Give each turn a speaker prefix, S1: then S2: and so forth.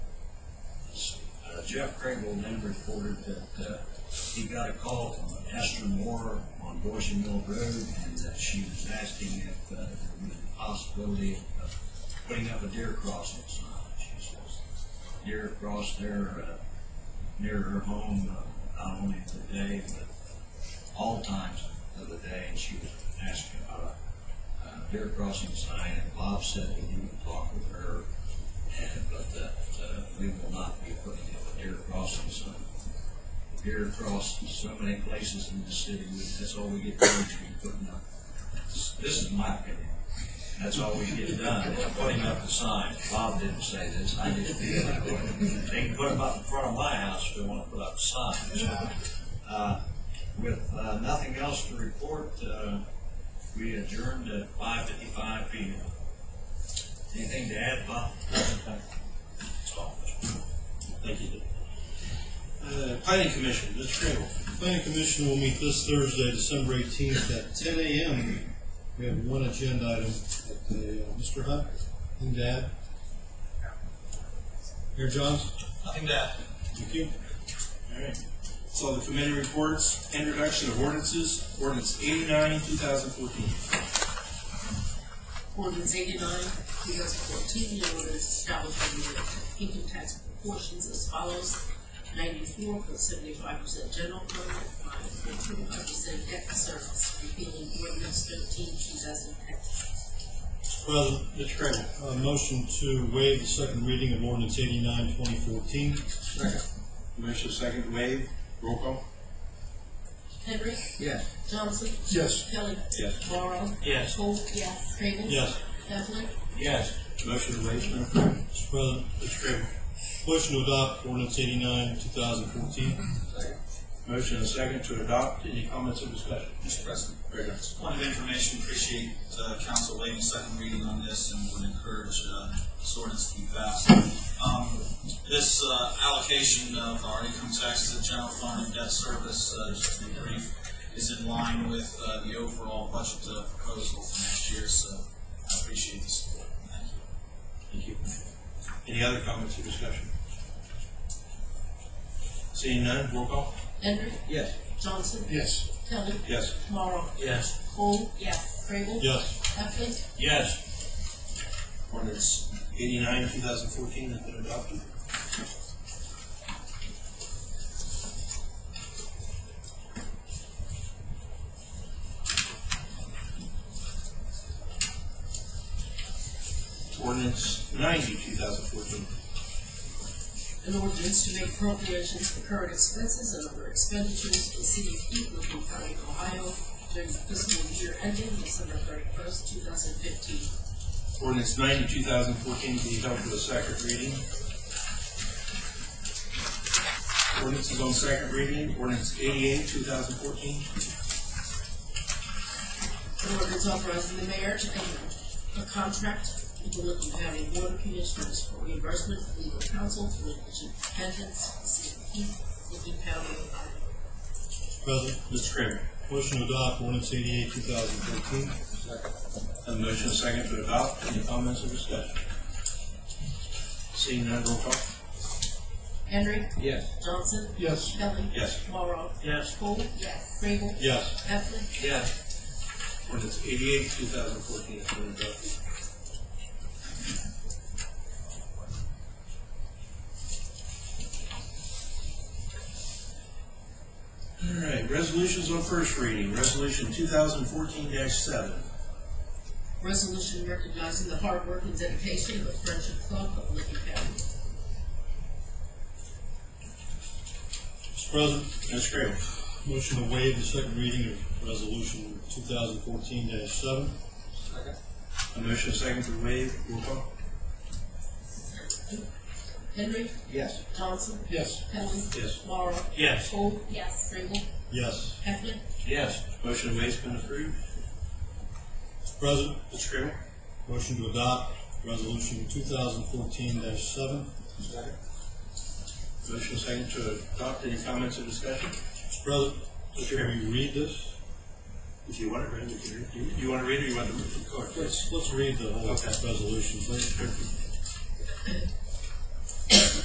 S1: Uh, Jeff Crable then reported that, uh, he got a call from Esther Moore on Boise Mill Road, and that she was asking if, uh, there was a possibility of putting up a deer crossing sign. She says, deer cross there, uh, near her home, uh, not only today, but all times of the day, and she was asking about a, uh, deer crossing sign, and Bob said that he would talk with her, and, but that, uh, we will not be putting up a deer crossing sign. Deer cross so many places in the city, that's all we get done, is we putting up, this this is my opinion, that's all we get done, is putting up the sign. Bob didn't say this, I just feel that way. They can put them up in front of my house if they want to put up signs. Uh, With uh, nothing else to report, uh, we adjourned at five fifty-five P M. Anything to add, Bob? That's all.
S2: Thank you. Uh, Planning Commission, Mr. Crable.
S3: Planning Commission will meet this Thursday, December eighteenth at ten AM. We have one agenda item at the, uh, Mr. Hunt, and Dad. Here, John,
S2: Nothing to add.
S3: thank you.
S2: All right. So the committee reports, introduction of ordinances, ordinance eighty-nine, two thousand fourteen.
S4: Ordinance eighty-nine, two thousand fourteen, an ordinance establishing the income tax proportions as follows. Ninety-four point seventy-five percent general permanent, five point twenty-five percent debt service, repealing ordinance thirteen, two thousand ten.
S3: President, Mr. Crable. Uh, motion to waive the second reading of ordinance eighty-nine, twenty fourteen.
S2: Second. Motion second wave, roll call.
S4: Henry.
S1: Yes.
S4: Johnson.
S3: Yes.
S4: Kelly.
S2: Yes.
S4: Morrow.
S1: Yes.
S4: Holt. Yes. Crable.
S3: Yes.
S4: Leffler.
S1: Yes.
S2: Motion to waive, Madam Clerk.
S3: Mr. President,
S2: Mr. Crable.
S3: motion to adopt ordinance eighty-nine, two thousand fourteen.
S2: Motion and second to adopt, any comments or discussion?
S5: Mr. President,
S2: Very nice.
S5: point of information, appreciate uh, council waiving second reading on this and would encourage uh, this ordinance to be passed. Um, This uh, allocation of our income tax to the general fund and debt service, uh, just to be brief, is in line with uh, the overall budget uh, proposal for next year, so I appreciate the support. Thank you.
S2: Thank you. Any other comments or discussion? Seeing none, roll call.
S4: Henry.
S1: Yes.
S4: Johnson.
S3: Yes.
S4: Kelly.
S2: Yes.
S4: Morrow.
S1: Yes.
S4: Holt. Yes. Crable.
S3: Yes.
S4: Leffler.
S1: Yes.
S2: Ordinance eighty-nine, two thousand fourteen has been adopted. Ordinance ninety, two thousand fourteen.
S4: an ordinance to make appropriations for current expenses and other expenditures for the city of Cleveland, County, Ohio during the fiscal year ending December thirty-first, two thousand fifteen.
S2: Ordinance ninety, two thousand fourteen, be held to a second reading. Ordinance is on second reading, ordinance eighty-eight, two thousand fourteen.
S4: An ordinance authorizing the mayor to enter a contract with the Lincoln County Board of Commissioners for reimbursement of legal counsel for litigation defendants for the city of Cleveland, Lincoln County, Ohio.
S3: Mr. President,
S2: Mr. Kramer.
S3: motion to adopt ordinance eighty-eight, two thousand fourteen.
S2: A motion and second to adopt, any comments or discussion? Seeing none, roll call.
S4: Henry.
S1: Yes.
S4: Johnson.
S3: Yes.
S4: Kelly.
S2: Yes.
S4: Morrow.
S1: Yes.
S4: Cole. Yes. Crable.
S3: Yes.
S4: Leffler.
S1: Yes.
S2: Ordinance eighty-eight, two thousand fourteen has been adopted. All right, resolutions on first reading, resolution two thousand fourteen seven.
S4: Resolution recognizing the hard work and dedication of the Friendship Club of Lincoln County.
S3: Mr. President,
S2: Mr. Kramer.
S3: Motion to waive the second reading of resolution two thousand fourteen seven.
S2: A motion and second to waive, roll call.
S4: Henry.
S1: Yes.
S4: Johnson.
S3: Yes.
S4: Helen.
S2: Yes.
S4: Morrow.
S2: Yes.
S4: Cole. Yes. Ringel.
S3: Yes.
S4: Heflin.
S1: Yes.
S2: Motion to waive's been approved.
S3: Mr. President,
S2: Mr. Kramer.
S3: motion to adopt resolution two thousand fourteen seven.
S2: Motion second to adopt, any comments or discussion?
S3: Mr. President, should we read this?
S2: If you want to read, you can read. You- You want to read or you want to move the court?
S3: Let's, let's read the whole
S2: Okay.
S3: resolution, please.